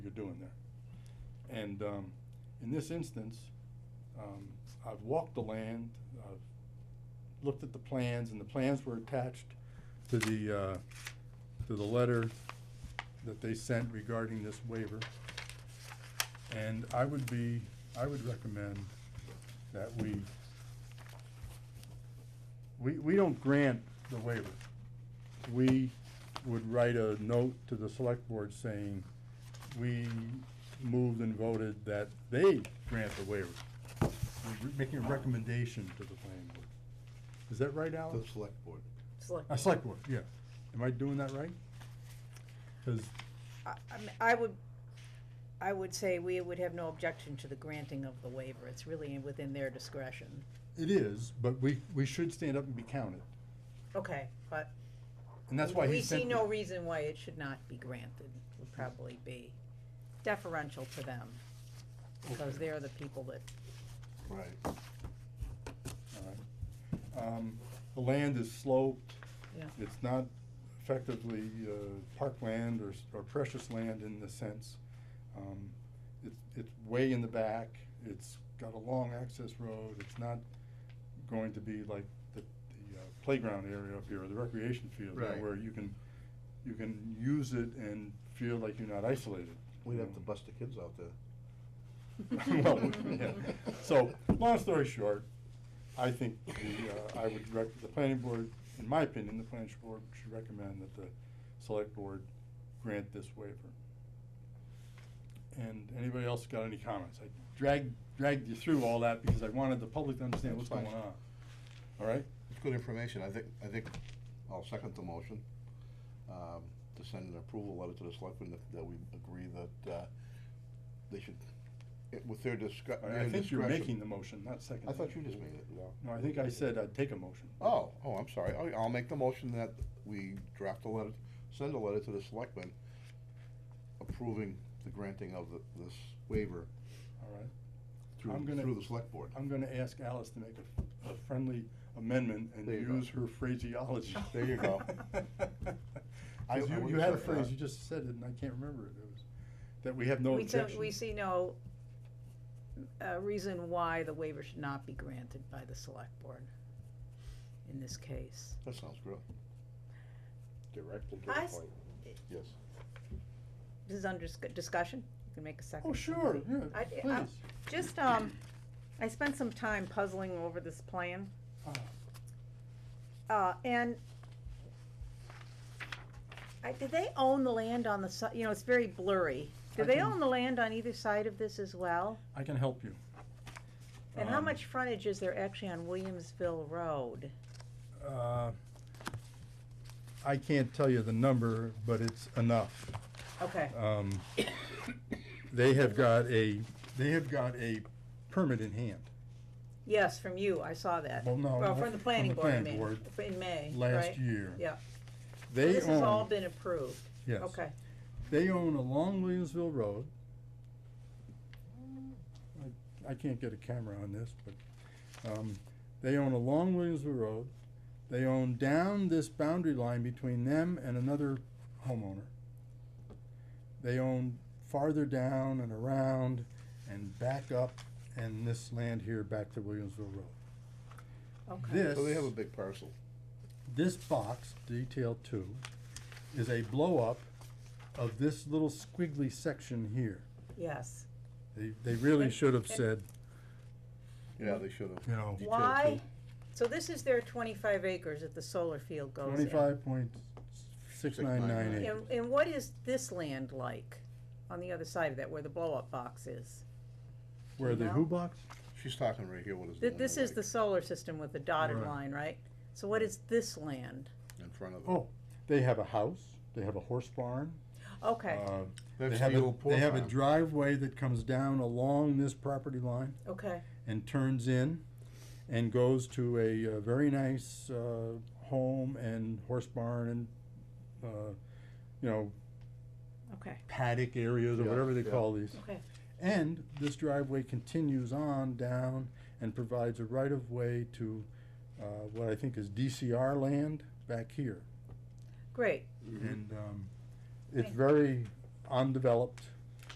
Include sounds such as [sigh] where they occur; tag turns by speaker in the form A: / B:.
A: you're doing there. And, um, in this instance, um, I've walked the land, I've looked at the plans, and the plans were attached to the, uh, to the letter that they sent regarding this waiver. And I would be, I would recommend that we, we, we don't grant the waiver. We would write a note to the select board saying, we moved and voted that they grant the waiver. We're re- making a recommendation to the planning board. Is that right, Alex?
B: The select board.
C: Select.
A: A select board, yeah. Am I doing that right? Because
C: I, I mean, I would, I would say we would have no objection to the granting of the waiver, it's really within their discretion.
A: it is, but we, we should stand up and be counted.
C: Okay, but.
A: And that's why he
C: We see
A: sent,
C: no
A: the-
C: reason why it should not be granted, would probably be deferential to them, because they're the people that,
B: Right.
A: all right. Um, The land is sloped.
C: Yeah.
A: It's not effectively uh, parkland or, s- or precious land in the sense. Um, It's, it's way in the back. It's got a long access road. It's not going to be like the, the uh, playground area up here or the recreation field. you know,
B: Right.
A: Where you can, you can use it and feel like you're not isolated.
B: We'd
A: you
B: have to
A: know.
B: bust the kids out there.
A: [laughs] Well, yeah. So, long story short, I think the, uh, I would rec, the planning board, in my opinion, the planning board should recommend that the select board grant this waiver. And anybody else got any comments? I dragged, dragged you through all that because I wanted the public to understand what's going
B: That's fine.
A: on. All right?
B: It's good information. I think, I think, I'll second the motion, um, to send an approval letter to the selectmen that, that we agree that, uh, they should, it- with their discre-
A: I-
B: their
A: I think you're
B: discretion-
A: making the motion, not seconding.
B: I thought
A: it.
B: you just made it, no.
A: No, I think I said I'd take a motion.
B: Oh, oh, I'm sorry. I'll, I'll make the motion that we draft a letter, send a letter to the selectmen approving the granting of the, this waiver
A: All right?
B: through,
A: I'm gonna-
B: through the select board.
A: I'm gonna ask Alice to make a, a friendly amendment and
B: There you go.
A: use her phraseology.
B: [laughs] There
A: [laughs]
B: you go. I- I
A: 'Cause you, you
B: wouldn't
A: had a
B: say that.
A: phrase, you just said it and I can't remember it, it was, that we have no
C: we do
A: objection.
C: we see no uh, reason why the waiver should not be granted by the select board in this case.
B: That sounds great.
D: Direct and to
C: I
D: the
C: s-
D: point.
B: Yes.
C: This is under discu- discussion, you can make a second.
A: Oh,
C: if
A: sure,
C: somebody-
A: yeah,
C: I- I-
A: please.
C: Just, um, I spent some time puzzling over this plan,
A: Ah,
C: uh, and I, do they own the land on the si- you know, it's very blurry. Do
A: I
C: they
A: can-
C: own the land on either side of this as well?
A: I can help you.
C: And how
A: Um,
C: much frontage is there actually on Williamsville Road?
A: Uh, I can't tell you the number, but it's enough.
C: Okay, [coughs]
A: Um, they have got a, they have got a permit in hand.
C: yes, from you, I saw that.
A: Well, no,
C: Uh, Well,
A: not
C: from the planning board, I
A: planning
C: mean,
A: board
C: in May,
A: Last
C: right?
A: year.
C: Yeah, So
A: They
C: this has all
A: own,
C: been approved,
A: yes.
C: okay.
A: They own along Williamsville Road. I- I can't get a camera on this, but, um, they own along Williamsville Road. They own down this boundary line between them and another homeowner. They own farther down and around and back up and this land here back to Williamsville Road.
C: Okay.
A: This-
B: So they have a big parcel.
A: This box, detail two, is a blow-up of this little squiggly section here.
C: Yes.
A: They, they really
C: And-
A: should have
C: and-
A: said,
B: Yeah, they should have.
A: you know,
B: Detail
C: Why,
B: two.
C: so this is their twenty-five acres that the solar field goes in.
A: twenty-five point six nine nine eight.
C: And, and what is this land like on the other side of that, where the blow-up box is?
A: Where the
C: No.
A: who box?
B: She's talking right here, what is the
C: Th-
B: one
C: This
B: in
C: is the solar system with the dotted
A: Right.
C: line, right? So what is this land?
B: In front of it.
A: Oh, they have a house, they have a horse barn.
C: Okay,
A: uh,
B: That's
A: They have
B: the
A: a,
B: old
A: they
B: pork
A: have a
B: farm.
A: driveway that comes down along this property line
C: okay,
A: and turns in and goes to a uh, very nice, uh, home and horse barn and, uh, you know,
C: okay,
A: paddock areas or
B: Yeah,
A: whatever they
B: yeah.
A: call these.
C: okay.
A: And this driveway continues on down and provides a right of way to, uh, what I think is DCR land back here.
C: Great,
B: Mm-hmm.
A: And, um, it's
C: Okay.
A: very undeveloped.